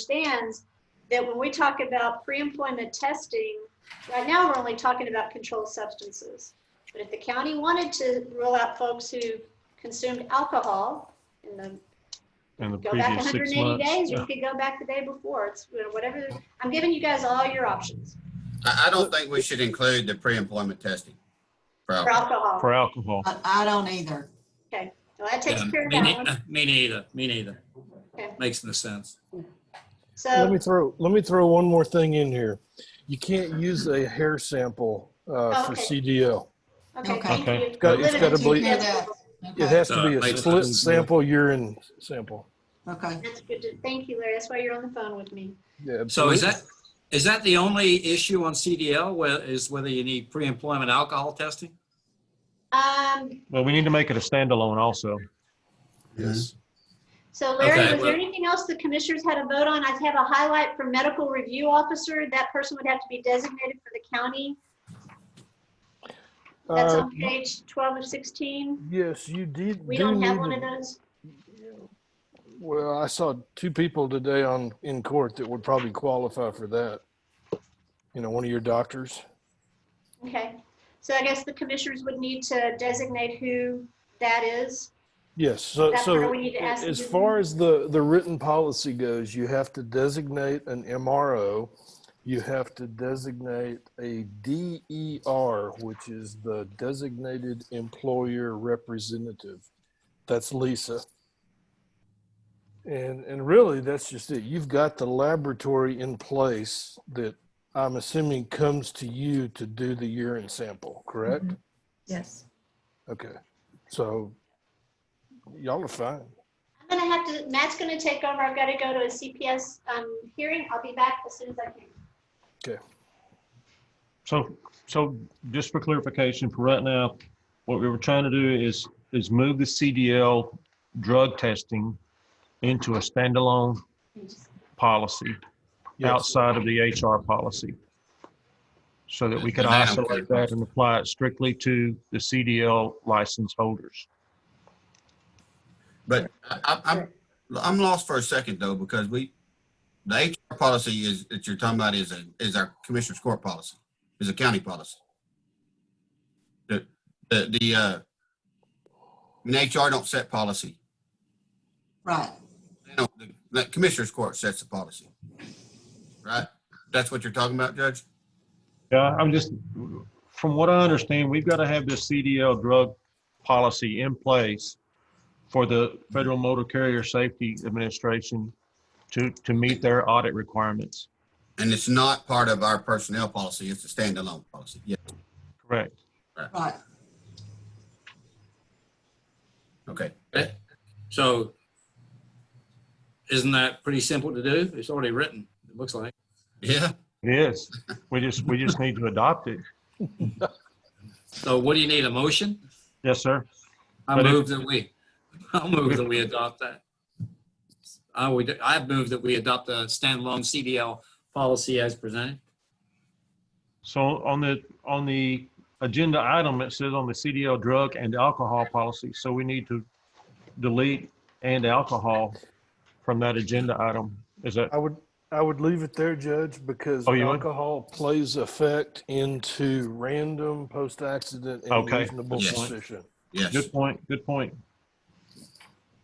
understands that when we talk about pre-employment testing, right now, we're only talking about controlled substances. But if the county wanted to rule out folks who consumed alcohol in the in the go back previous six 180 days, months. or Yeah. you could go back the day before. It's you know, whatever. I'm giving you guys all your options I, I don't think we should include the pre-employment testing. for Probably. alcohol. For alcohol, I, I don't either. So that takes Yeah, care of me that nei- one. Me neither, me neither. Okay. Makes no sense. Let So, me throw, let me throw one more thing in here. You can't use a hair sample uh, for Okay. CDO. okay, Okay. thank Okay. you. got- We're it's limited gotta to be- that. It Okay, has to be Uh, a makes split sense. sample, urine sample. okay. That's good. to- Thank you, Larry. That's why you're on the phone with me. Yeah, So absolutely. is that, is that the only issue on CDL, where, is whether you need pre-employment alcohol testing? Um, but we need to make it a standalone also. Yes. so Larry, Okay, was there well- anything else the commissioners had a vote on? I have a highlight for medical review officer. That person would have to be designated for the county. That's Uh, on page 12 of 16. Yes, you did. We do don't have need one to- of those. Well, I saw two people today on, in court that would probably qualify for that. You know, one of your doctors. Okay. So I guess the commissioners would need to designate who that is. Yes, so, That's where so we need to ask as them. far as the, the written policy goes, you have to designate an MRO. You have to designate a DER, which is the designated employer representative. That's Lisa. And, and really, that's just it. You've got the laboratory in place that I'm assuming comes to you to do the urine sample, correct? Yes. Okay, so y'all are fine. I'm gonna have to, Matt's gonna take over. I've gotta go to a CPS um, hearing. I'll be back as soon as I can. So, so just for clarification, for right now, what we were trying to do is, is move the CDL drug testing into a standalone policy Yes. outside of the HR policy. So that we could And I don't isolate care. that and apply it strictly to the CDL license holders. But I, I- I'm, I'm lost for a second though, because we, the HR policy is, that you're talking about is, a- is our commissioner's court policy, is a county policy. The, the, the, uh, I mean, HR don't set policy. Right. They don't- the- The commissioner's court sets the policy. Right? That's what you're talking about, Judge? Yeah, I'm just, from what I understand, we've got to have this CDL drug policy in place for the Federal Motor Carrier Safety Administration to, to meet their audit requirements. And it's not part of our personnel policy, it's a standalone policy. Yeah, Correct. Right. okay. So isn't that pretty simple to do? It's already written, it looks like. Yeah, It is. We just, we just need to adopt it. So what do you need, a motion? Yes, sir. I But if- move that we, I'll move that we adopt that. I would, I move that we adopt a standalone CDL policy as presented. So on the, on the agenda item, it says on the CDL drug and alcohol policy. So we need to delete and alcohol from that agenda item. Is that, I would, I would leave it there, Judge, because Oh, you would? alcohol plays effect into random post-accident and Okay. reasonable Yes. suspicion. yes, good point, good point.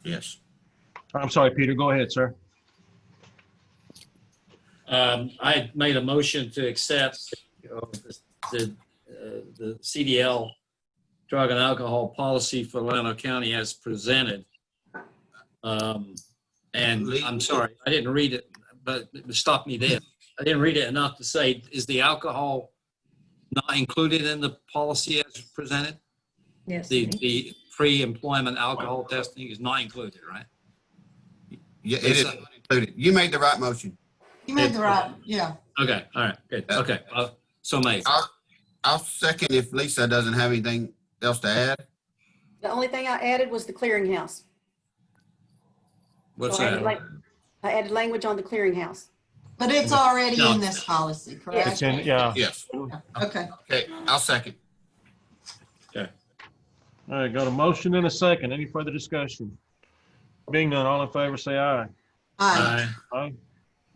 yes. I'm sorry, Peter, go ahead, sir. Um, I had made a motion to accept uh, the, uh, the CDL drug and alcohol policy for Lano County as presented. Um, and I'm sorry, I didn't read it, but stop me there. I didn't read it enough to say, is the alcohol not included in the policy as presented? Yes. The, the pre-employment alcohol testing is not included, right? Yeah, it is It's- included. You made the right motion. You made the right, yeah. Okay, all right, good, okay. uh, So made. I'll second if Lisa doesn't have anything else to add. The only thing I added was the clearinghouse. What's So I added that? lang- I added language on the clearinghouse. But it's already No. in this policy, It's correct? in, yeah. Yes, Okay. okay, I'll second. All right, got a motion and a second. Any further discussion? Being none, all in favor, say aye. All right. Aye. Aye.